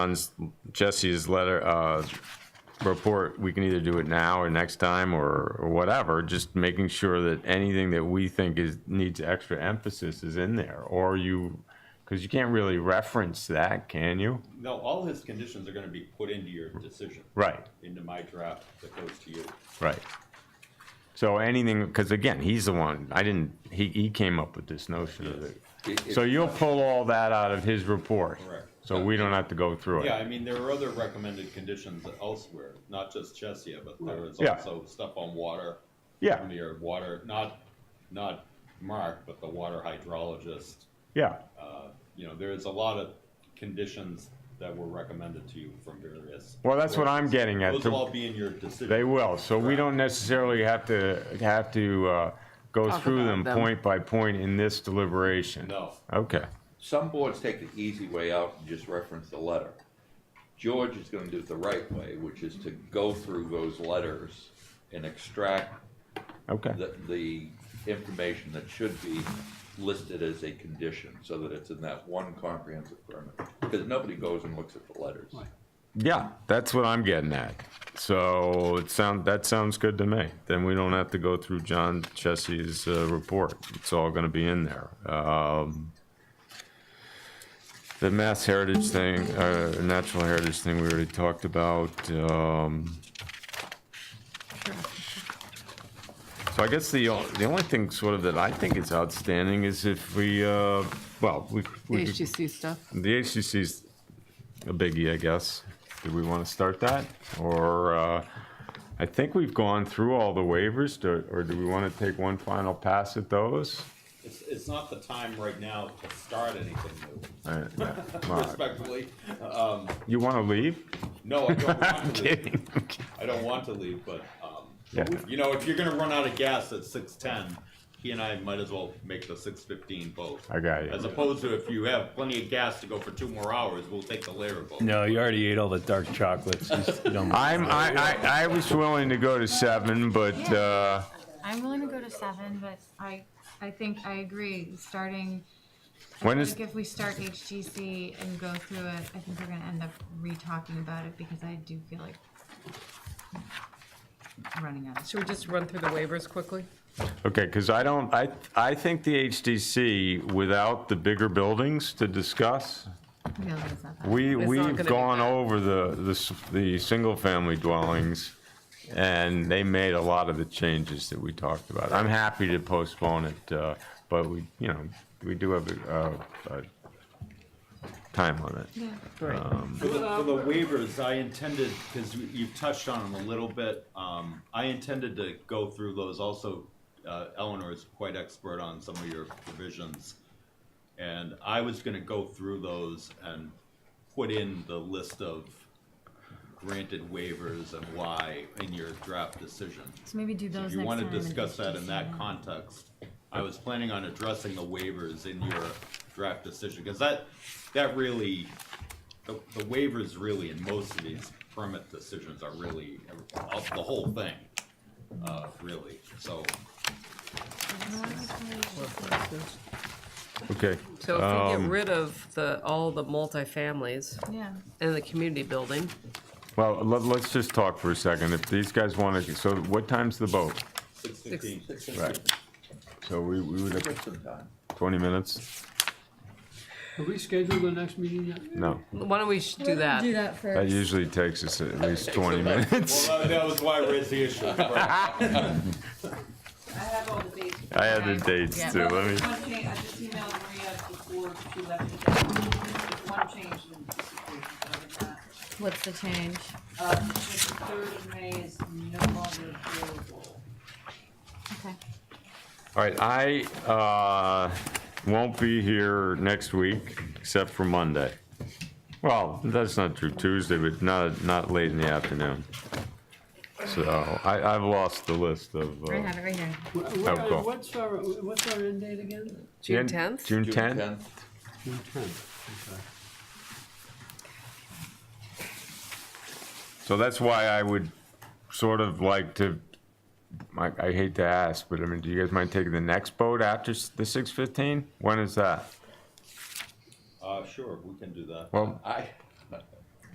on Jesse's letter, uh, report, we can either do it now or next time or, or whatever, just making sure that anything that we think is, needs extra emphasis is in there, or you, because you can't really reference that, can you? No, all his conditions are gonna be put into your decision. Right. Into my draft that goes to you. Right. So anything, because again, he's the one, I didn't, he, he came up with this notion of it. So you'll pull all that out of his report? Correct. So we don't have to go through it? Yeah, I mean, there are other recommended conditions elsewhere, not just Chesia, but there is Yeah. also stuff on water. Yeah. From your water, not, not Mark, but the water hydrologist. Yeah, Uh, You know, there is a lot of conditions that were recommended to you from various. well, that's what I'm getting at. Those will all be in your They decision. will, so we don't necessarily have to, have to uh, go Talk through about them them. point by point in this deliberation. No, Okay, Some boards take the easy way out and just reference the letter. George is gonna do it the right way, which is to go through those letters and extract okay, the, the information that should be listed as a condition, so that it's in that one comprehensive permit. Because nobody goes and looks at the letters. yeah, that's what I'm getting at. So it sound, that sounds good to me. Then we don't have to go through John Chessie's uh, report. It's all gonna be in there. Um, The Mass Heritage thing, uh, Natural Heritage thing, we already talked about. Um, So I guess the, o- the only thing sort of that I think is outstanding is if we, uh, well, we. The we could- HGC stuff. The HCC's a biggie, I guess. Do we want to start that? Or, uh, I think we've gone through all the waivers, Do- or do we want to take one final pass at those? it's, it's not the time right now to start anything new, Uh, yeah, well, respectfully. You want to leave? No, I don't want to leave. Kidding. I don't want to leave, but, um, Yeah. you know, if you're gonna run out of gas at six ten, he and I might as well make the six fifteen boat. I got As you. opposed to if you have plenty of gas to go for two more hours, we'll take the later boat. No, you already ate all the dark chocolates. Just don't- I'm, I, I, I was willing to go to seven, but, uh, I'm willing to go to seven, but I, I think I agree, starting, when I is, think if we start HGC and go through it, I think we're gonna end up re-talking about it, because I do feel like running out of Should we just run through the waivers quickly? okay, because I don't, I, I think the HDC, without the bigger buildings to discuss, no, that's not that. We, not gonna we've be gone that. over the, the, s- the single-family dwellings, and they made a lot of the changes that we talked about. I'm happy to postpone it, uh, but we, you know, we do have a, a, a time limit. For the, for the waivers, I intended, because you've touched on them a little bit, um, I intended to go through those also. Uh, Eleanor is quite expert on some of your provisions. And I was gonna go through those and put in the list of granted waivers and why in your draft decision. So maybe do So If those next you time. wanna and discuss that in that HGC. context, I was planning on addressing the waivers in your draft decision, cause that, that really, the, the waivers really in most of these permit decisions are really, uh, the whole thing, uh, really, so. Okay, So if we get rid of the, all the multifamilies Yeah, and the community building, well, let, let's just talk for a second. If these guys want to, so what time's the boat? Six fifteen. Right. So we, we would have Just in time. twenty minutes? Have we scheduled the next meeting yet? No, why don't we sh- do that? do that that first. usually takes us at least twenty minutes. Well, that- that was why I raised the issue. Right. I have all the dates. I had the dates too, let me. One change, I just emailed Maria before she left today. There's One change in this equation, other than that. What's the change? Uh, the third of May is no longer available. Okay. All right, I uh, won't be here next week, except for Monday. Well, that's not true, Tuesday, but not, not late in the afternoon. So I, I've lost the list of. uh, I have it right here. Wh- what Oh, are- cool. What's our, what's our end date again? June 10th? June June 10th. tenth. June tenth. So that's why I would sort of like to, I I hate to ask, but I mean, do you guys mind taking the next boat after s- the 6:15? When is that? Uh, sure, we can do that. Well, I,